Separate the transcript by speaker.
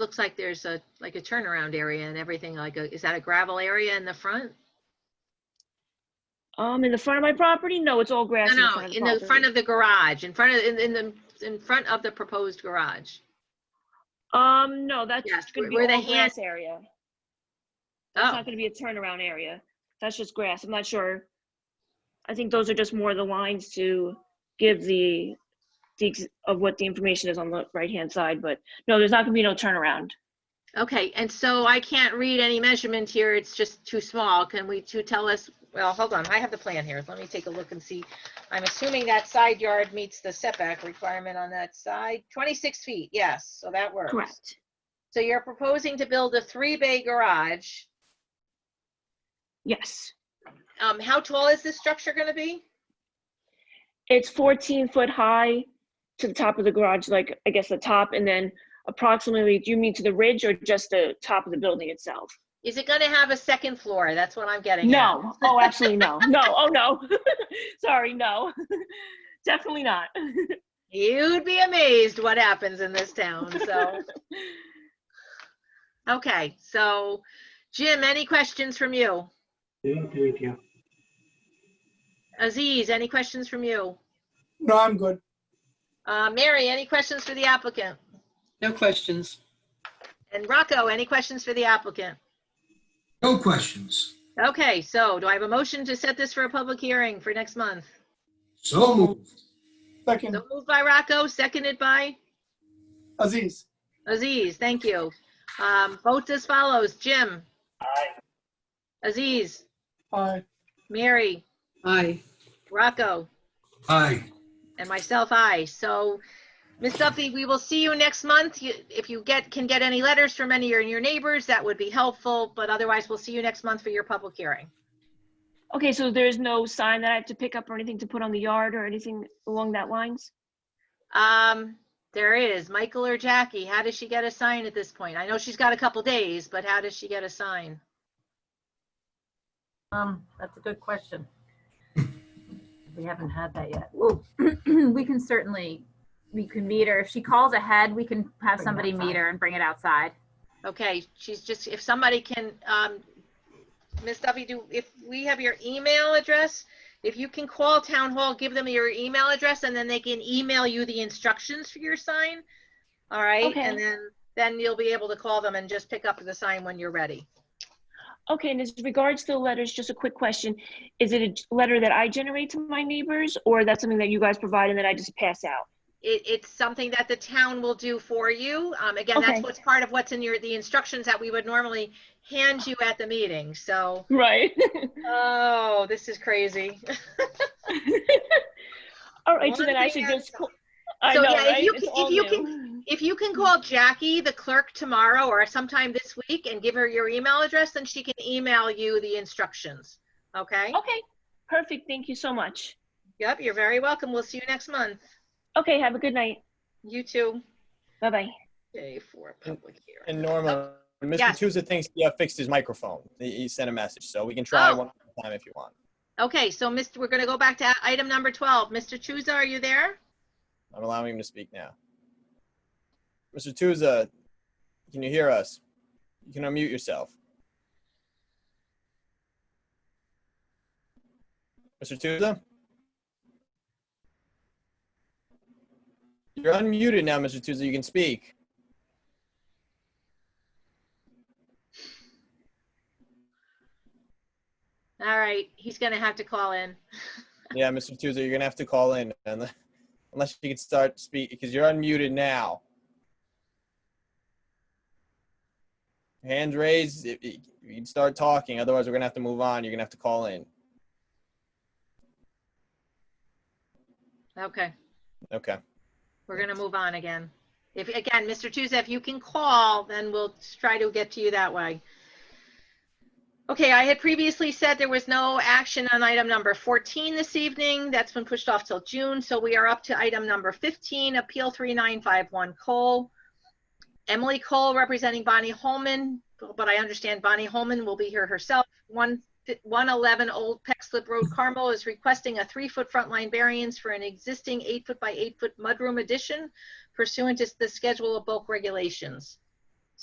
Speaker 1: looks like there's a, like a turnaround area and everything, like, a is that a gravel area in the front?
Speaker 2: Um, in the front of my property? No, it's all grass
Speaker 1: No,
Speaker 2: in
Speaker 1: no,
Speaker 2: the front
Speaker 1: in the front
Speaker 2: of the property.
Speaker 1: of the garage, in front of, in, in the, in front of the proposed garage.
Speaker 2: Um, no, that's
Speaker 1: Yes,
Speaker 2: gonna be
Speaker 1: where the
Speaker 2: all
Speaker 1: hand-
Speaker 2: grass area. That's
Speaker 1: Oh,
Speaker 2: not gonna be a turnaround area. That's just grass. I'm not sure. I think those are just more the lines to give the, the, ex- of what the information is on the right-hand side, but no, there's not gonna be no turnaround.
Speaker 1: okay, and so I can't read any measurement here, it's just too small, can we, to tell us, well, hold on, I have the plan here, let me take a look and see. I'm assuming that side yard meets the setback requirement on that side, 26 feet, yes, so that works.
Speaker 2: Correct.
Speaker 1: So you're proposing to build a three-bay garage.
Speaker 2: Yes.
Speaker 1: Um, how tall is this structure gonna be?
Speaker 2: It's fourteen foot high to the top of the garage, like, I guess the top, and then approximately, do you mean to the ridge or just the top of the building itself?
Speaker 1: Is it gonna have a second floor? That's what I'm getting at.
Speaker 2: No, oh, absolutely no. No, oh, no. Sorry, no. Definitely not.
Speaker 1: You'd be amazed what happens in this town, so. Okay, so Jim, any questions from you?
Speaker 3: Yeah, thank you.
Speaker 1: Aziz, any questions from you?
Speaker 4: No, I'm good.
Speaker 1: Uh, Mary, any questions for the applicant?
Speaker 5: No questions.
Speaker 1: And Rocco, any questions for the applicant?
Speaker 6: No questions.
Speaker 1: Okay, so do I have a motion to set this for a public hearing for next month?
Speaker 6: So moved.
Speaker 4: Second,
Speaker 1: So moved by Rocco, seconded by?
Speaker 4: Aziz.
Speaker 1: Aziz, thank you. Um, votes as follows. Jim? Aye. Aziz,
Speaker 4: Aye.
Speaker 1: Mary,
Speaker 5: Aye.
Speaker 1: Rocco,
Speaker 6: Aye.
Speaker 1: and myself, aye. So, Ms. Duffy, we will see you next month. You- If you get, can get any letters from any of your- your neighbors, that would be helpful, but otherwise, we'll see you next month for your public hearing.
Speaker 2: Okay, so there's no sign that I have to pick up or anything to put on the yard or anything along that lines?
Speaker 1: Um, there is Michael or Jackie. How does she get a sign at this point? I know she's got a couple days, but how does she get a sign?
Speaker 7: Um, that's a good question. We haven't had that yet. Well, we can certainly, we can meet her. If she calls ahead, we can have
Speaker 5: Bring it
Speaker 7: somebody meet
Speaker 5: outside.
Speaker 7: her and bring it outside.
Speaker 1: Okay, she's just, if somebody can, um, Ms. Duffy, do, if we have your email address, if you can call town hall, give them your email address and then they can email you the instructions for your sign. All right,
Speaker 2: Okay.
Speaker 1: and then, then you'll be able to call them and just pick up the sign when you're ready.
Speaker 2: Okay, and as regards to the letters, just a quick question. Is it a g- letter that I generate to my neighbors or that's something that you guys provide and then I just pass out?
Speaker 1: It, it's something that the town will do for you. Um, again, that's
Speaker 2: Okay.
Speaker 1: what's part of what's in your, the instructions that we would normally hand you at the meeting, so,
Speaker 2: Right.
Speaker 1: oh, this is crazy.
Speaker 2: All right, so
Speaker 1: One
Speaker 2: then I
Speaker 1: thing
Speaker 2: should
Speaker 1: at a
Speaker 2: just, call- I
Speaker 1: So,
Speaker 2: know,
Speaker 1: yeah, if
Speaker 2: right?
Speaker 1: you
Speaker 2: It's
Speaker 1: can- if
Speaker 2: all
Speaker 1: you
Speaker 2: new.
Speaker 1: If you can call Jackie, the clerk, tomorrow or sometime this week and give her your email address, then she can email you the instructions. Okay?
Speaker 2: Okay, perfect. Thank you so much.
Speaker 1: Yep, you're very welcome. We'll see you next month.
Speaker 2: Okay, have a good night.
Speaker 1: You too.
Speaker 2: Bye-bye.
Speaker 1: Day for public hearing.
Speaker 8: And Norma, Mr.
Speaker 1: Yes.
Speaker 8: Tusa thinks he uh, fixed his microphone. He he sent a message, so we can try
Speaker 1: Oh.
Speaker 8: one more time if you want.
Speaker 1: Okay, so Mr., we're going to go back to item number 12. Mr. Chuza, are you there?
Speaker 8: I'm allowing him to speak now. Mr. Tusa, can you hear us? You can unmute yourself. Mr. Tusa? You're unmuted now, Mr. Tusa. You can speak.
Speaker 1: All right, he's going to have to call in.
Speaker 8: Yeah, Mr. Tusa, you're gonna have to call in unless unless you can start speak because you're unmuted now. Hand raised, if you you can start talking. Otherwise, we're gonna have to move on. You're gonna have to call in.
Speaker 1: Okay,
Speaker 8: Okay.
Speaker 1: we're going to move on again. If, again, Mr. Chuza, if you can call, then we'll try to get to you that way. Okay, I had previously said there was no action on item number 14 this evening. That's been pushed off till June, so we are up to item number 15, Appeal 3951 Cole. Emily Cole representing Bonnie Holman, but I understand Bonnie Holman will be here herself. One- 111 Old Peck Slip Road, Carmel is requesting a three-foot front line variance for an existing eight-foot by eight-foot mudroom addition pursuant to the Schedule of Bulk Regulations.